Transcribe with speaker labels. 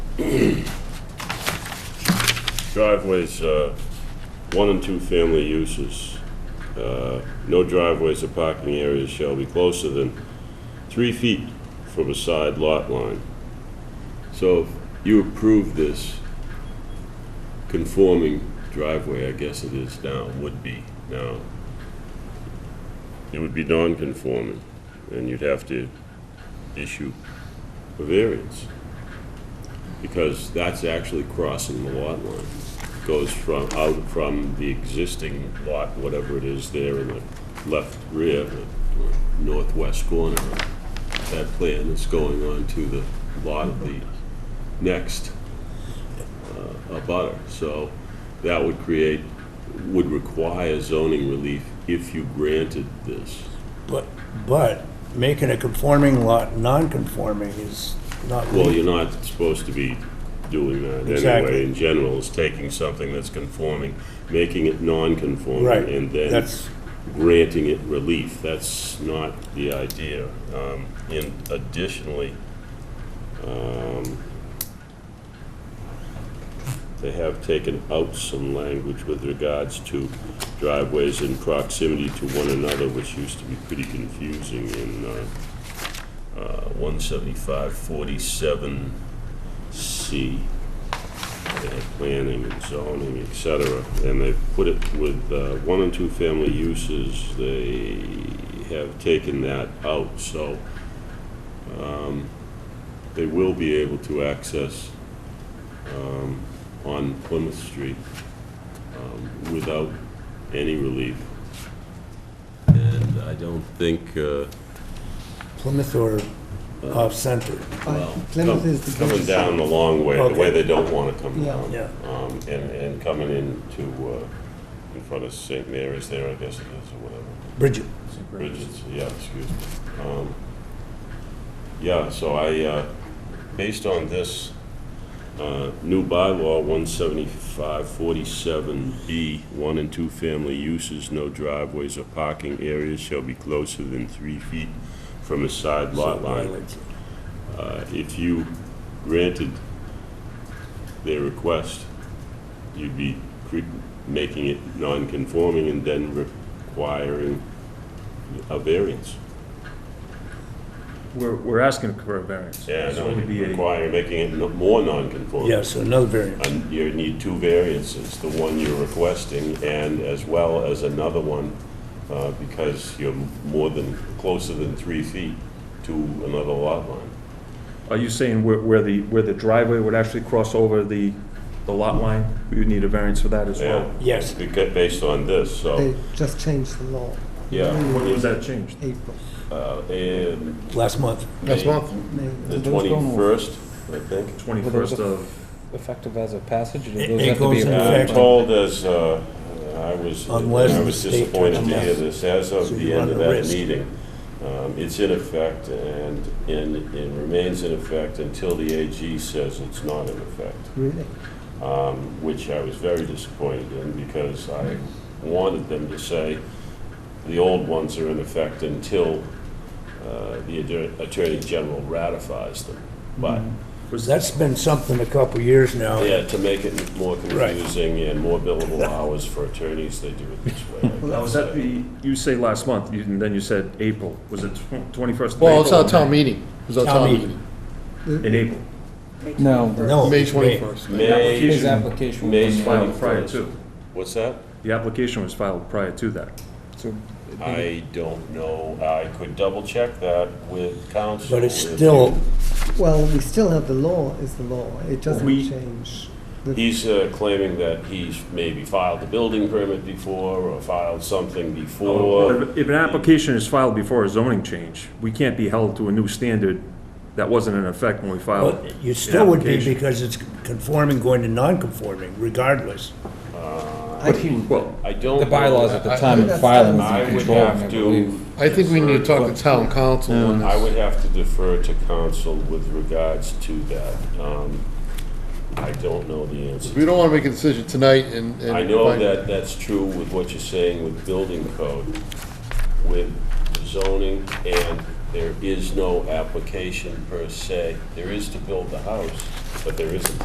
Speaker 1: Driveways, uh, one and two family uses. Uh, No driveways or parking areas shall be closer than three feet from a side lot line. So if you approve this conforming driveway, I guess it is now, would be now. It would be non-conforming, and you'd have to issue a variance because that's actually crossing the lot line. Goes from, out from the existing lot, whatever it is there in the left rear, or northwest corner of that plan that's going on to the lot of the next uh, abutter. So that would create, would require zoning relief if you granted this.
Speaker 2: But, but making a conforming lot non-conforming is not
Speaker 1: Well,
Speaker 2: legal.
Speaker 1: you're not supposed to be doing that
Speaker 2: Exactly.
Speaker 1: anyway, in general, is taking something that's conforming, making it non-conforming.
Speaker 2: Right,
Speaker 1: And then
Speaker 2: that's-
Speaker 1: granting it relief, that's not the idea. Um, And additionally, um, they have taken out some language with regards to driveways in proximity to one another, which used to be pretty confusing in uh, 17547C, they had planning and zoning, et cetera, and they've put it with uh, one and two-family uses, they have taken that out, so um, they will be able to access um, on Plymouth Street um, without any relief. And I don't think, uh,
Speaker 2: Plymouth or off-center.
Speaker 1: Well,
Speaker 3: Plymouth
Speaker 1: come-
Speaker 3: is the
Speaker 1: Coming
Speaker 3: biggest-
Speaker 1: down the long way, the way
Speaker 2: Okay.
Speaker 1: they don't want to come
Speaker 3: Yeah.
Speaker 1: down.
Speaker 2: Yeah.
Speaker 1: Um, And, and coming into, uh, in front of St. Mary's there, I guess it is, or whatever.
Speaker 2: Bridget,
Speaker 1: Bridges, yeah, excuse me. Um, Yeah, so I, uh, based on this uh, new bylaw, 17547B, one and two family uses, no driveways or parking areas shall be closer than three feet from a side lot line. Uh, If you granted their request, you'd be cre- making it non-conforming and then requiring a variance.
Speaker 4: We're, we're asking for a variance.
Speaker 1: Yeah,
Speaker 4: It's
Speaker 1: no,
Speaker 4: going to be a-
Speaker 1: require, making it no- more non-conforming.
Speaker 2: yeah, so another variant.
Speaker 1: And you need two variances, the one you're requesting and as well as another one, uh, because you're more than, closer than three feet to another lot line.
Speaker 4: Are you saying where, where the, where the driveway would actually cross over the, the lot line? You need a variance for that as well?
Speaker 2: Yes.
Speaker 1: Beca- Based on this, so,
Speaker 3: They just changed the law
Speaker 1: Oh. yeah.
Speaker 4: When was that changed?
Speaker 3: April.
Speaker 1: Uh, and
Speaker 2: Last month,
Speaker 5: Last month,
Speaker 3: May.
Speaker 1: The
Speaker 6: Do those go in-
Speaker 1: twenty-first, I think.
Speaker 4: Twenty-first of,
Speaker 6: effective as a passage, or do
Speaker 2: It-
Speaker 6: those
Speaker 2: it
Speaker 6: have to be
Speaker 2: goes in
Speaker 1: I'm
Speaker 2: effect.
Speaker 6: approved?
Speaker 1: told as, uh, I was,
Speaker 2: Unless
Speaker 1: I was
Speaker 2: the state
Speaker 1: disappointed to
Speaker 2: turns-
Speaker 1: hear this, as of
Speaker 2: So
Speaker 1: the
Speaker 2: you
Speaker 1: end
Speaker 2: run
Speaker 1: of
Speaker 2: the
Speaker 1: that
Speaker 2: risk.
Speaker 1: meeting, um, it's in effect and, and it remains in effect until the AG says it's not in effect,
Speaker 3: Really?
Speaker 1: um, which I was very disappointed in because I wanted them to say the old ones are in effect until uh, the Atter- Attorney General ratifies them.
Speaker 2: Mm-hmm.
Speaker 1: But
Speaker 2: that's been something a couple years now.
Speaker 1: yeah, to make it more
Speaker 2: Right.
Speaker 1: confusing and more billable hours for attorneys, they do it this way.
Speaker 4: now, was that the, you say last month, you- and then you said April. Was it twenty-first of April?
Speaker 5: well, it's our
Speaker 4: or
Speaker 5: town
Speaker 4: May?
Speaker 5: meeting, it was our
Speaker 2: Town
Speaker 5: town
Speaker 2: meeting.
Speaker 5: meeting,
Speaker 4: In April.
Speaker 6: No,
Speaker 2: No.
Speaker 5: May
Speaker 2: it's
Speaker 5: twenty-first.
Speaker 1: May,
Speaker 6: his application
Speaker 1: May
Speaker 6: was,
Speaker 4: Filed prior Mm-hmm.
Speaker 1: 21st.
Speaker 4: to.
Speaker 1: What's that?
Speaker 4: The application was filed prior to that.
Speaker 6: so
Speaker 1: I don't know. I could double check that with council.
Speaker 2: But it's
Speaker 1: if you-
Speaker 2: still,
Speaker 3: Well, we still have the law is the law. It
Speaker 1: We-
Speaker 3: doesn't change.
Speaker 1: He's uh, claiming that he's maybe filed a building permit before or filed something before.
Speaker 4: If if an application is filed before a zoning change, we can't be held to a new standard that wasn't in effect when we filed.
Speaker 2: but you
Speaker 4: an
Speaker 2: still would be
Speaker 4: application.
Speaker 2: because it's conforming going to non-conforming regardless.
Speaker 6: but he,
Speaker 4: Well,
Speaker 1: I don't.
Speaker 6: the bylaws
Speaker 1: know.
Speaker 6: at the time of
Speaker 3: I- I-
Speaker 6: filing was
Speaker 1: I
Speaker 6: in
Speaker 1: would
Speaker 6: control, I
Speaker 1: have to.
Speaker 6: believe.
Speaker 5: I think we need to talk to town council on
Speaker 1: I
Speaker 5: this.
Speaker 1: would have to defer to council with regards to that. Um, I don't know the answer.
Speaker 5: We don't want to make a decision tonight and. and
Speaker 1: I know
Speaker 5: find-
Speaker 1: that that's true with what you're saying with building code, with zoning, and there is no application per se. There is to build the house, but there isn't.